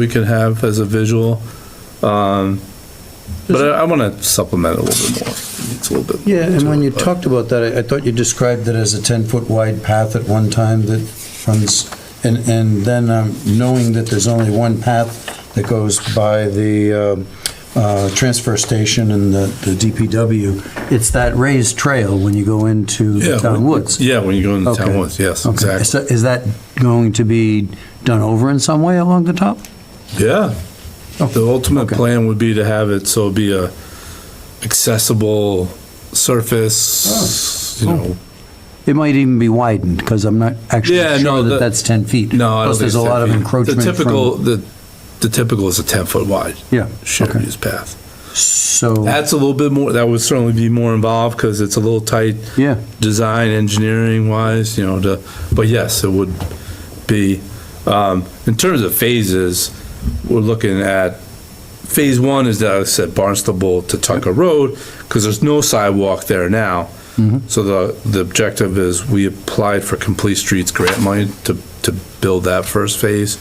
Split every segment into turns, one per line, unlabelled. we could have as a visual. Um, But I want to supplement it a little bit more. It's a little bit.
Yeah, and when you
but-
talked about that, I- I thought you described it as a 10-foot wide path at one time that runs, and, and then um, knowing that there's only one path that goes by the um, uh, transfer station and the the DPW, it's that raised trail when you go into
Yeah,
the town
when-
woods.
Yeah, when you go in the town
Okay.
woods, yes,
Okay.
exactly.
So Is that going to be done over in some way along the top?
Yeah.
Oh,
The ultimate
okay.
plan would be to have it so it'd be a accessible surface, you
Oh.
know.
It might even be widened, because I'm not actually
Yeah, no,
sure
the-
that that's 10 feet.
No, I don't
Plus,
think
there's
it's
a
10
lot of
feet.
encroachment
The
from...
typical, the, the typical is a ten foot wide
Yeah,
shared
okay,
use path.
so,
That's a little bit more, that would certainly be more involved because it's a little tight
yeah.
design, engineering wise, you know, to, but yes, it would be, um, in terms of phases, we're looking at, phase one is that I said Barnstable to Tucker Road, because there's no sidewalk there now.
Mhm.
So the, the objective is we applied for Complete Streets grant money to, to build that first phase.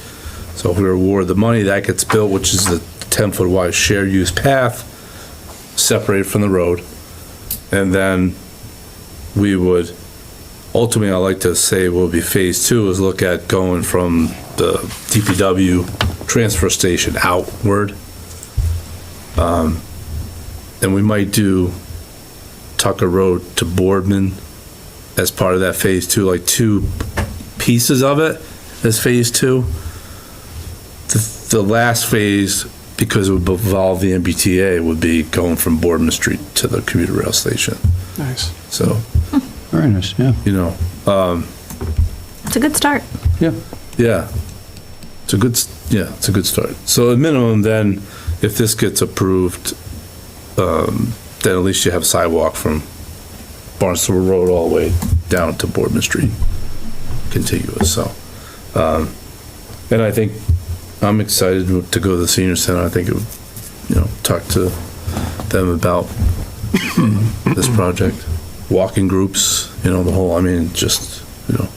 So if we award the money, that gets built, which is the ten foot wide shared use path separated from the road. And then we would, ultimately, I like to say will be phase two is look at going from the DPW transfer station outward. Um, And we might do Tucker Road to Boardman as part of that phase two, like two pieces of it as phase two. The, the last phase, because it would involve the MBTA, would be going from Boardman Street to the commuter rail station.
Nice.
So,
Very nice, yeah.
you know,
It's a good start.
yeah. It's a good, s- yeah, it's a good start. So at minimum, then, if this gets approved, um, then at least you have sidewalk from Barnstable Road all the way down to Boardman Street, contiguous, so. um, And I think, I'm excited to go to the senior center. I think, it would, you know, talk to them about this project. Walking groups, you know, the whole, I mean, just, you know,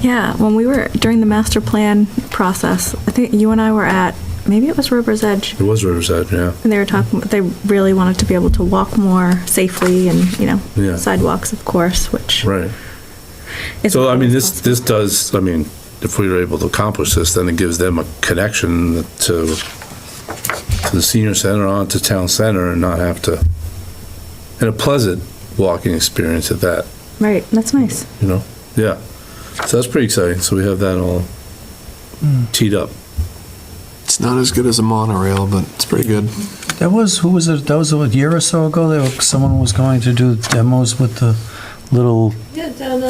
Yeah, when we were during the master plan process, I think you and I were at maybe it was River's Edge,
it was Riverside, yeah.
and they were talking. They really wanted to be able to walk more safely, and you know,
Yeah.
sidewalks, of course, which
Right.
is
So, I mean,
always
this,
possible.
this does, I mean, if we were able to accomplish this, then it gives them a connection to, to the senior center, on to town center, and not have to, and a pleasant walking experience at that,
right. That's nice.
you know? Yeah. So that's pretty exciting. So we have that all teed up.
It's not as good as a monorail, but it's pretty good.
That was, who was it, that was a year or so ago, there, someone was going to do demos with the little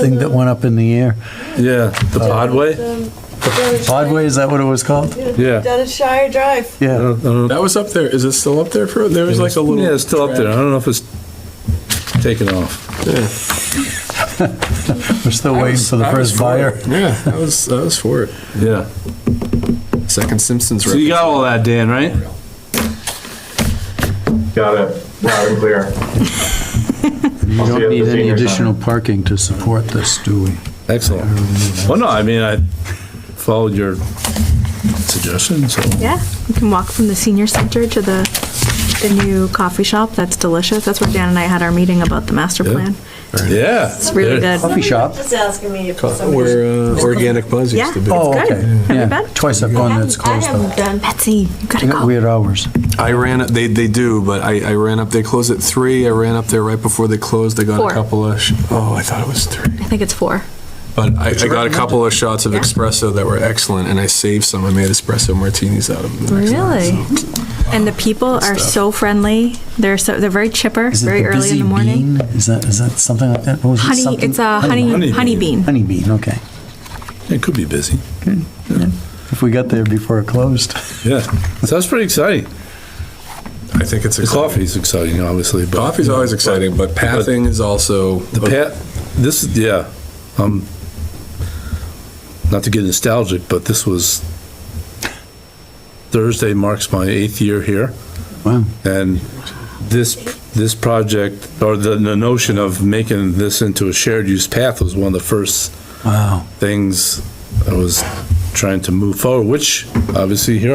thing that went up in the air.
Yeah, the podway?
um,
Podway, is that what it was called?
Yeah.
Dennis Shire Drive.
I
Yeah,
don't- I don't-
That was up there. Is it still up there for? There was like a little.
Yeah, it's still up there. I
track.
don't know if it's taken off.
Yeah,
we're still waiting for the
I was
first
for
buyer.
it. Yeah, I was. I was for it.
Yeah.
Second Simpsons.
So you got all that, Dan, right?
Got it, loud and clear.
You
I'll see you
don't
at
need
the
any
senior center.
additional parking to support this, do we?
Excellent. Well, no, I mean, I followed your suggestion, so.
Yeah, you can walk from the senior center to the the new coffee shop. That's delicious. That's where Dan and I had our meeting about the master
Yeah.
plan.
Yeah.
It's really
There-
good.
Coffee shop?
Just asking me if somebody.
Where uh, organic buzz used
Yeah.
to be.
Oh,
good.
okay.
Have you
Yeah.
been?
Twice I've gone, there. it's
I
closed
haven't
up.
done.
Betsy, you gotta
They got
go.
weird hours.
I ran up. They they do, but I, I ran up. They closed at three. I ran up there right before they closed. I got
Four.
a couple of. Sh- oh, I thought it was three.
I think it's four.
But I, I got a couple of shots of espresso that were excellent, and I saved some. I made espresso martinis out of them. the next night,
Really?
so.
And the people are
stuff.
so friendly. They're so they're very chipper,
Is it
very
the
early in
busy
the morning.
bean? Is that, is that something like that? What was it?
Honey,
Something-
it's a honey honey,
honey
bean.
Honey bean, okay.
It could be busy.
If we got there before it closed.
Yeah. So that's pretty exciting.
I think it's
The
exciting.
coffee's exciting, obviously, but.
Coffee's always exciting, but pathing is also
The pat, this, is yeah, um, not to get nostalgic, but this was, Thursday marks my eighth year here.
Wow.
And this, this project, or the, the notion of making this into a shared use path was one of the first
Wow.
things I was trying to move forward, which obviously here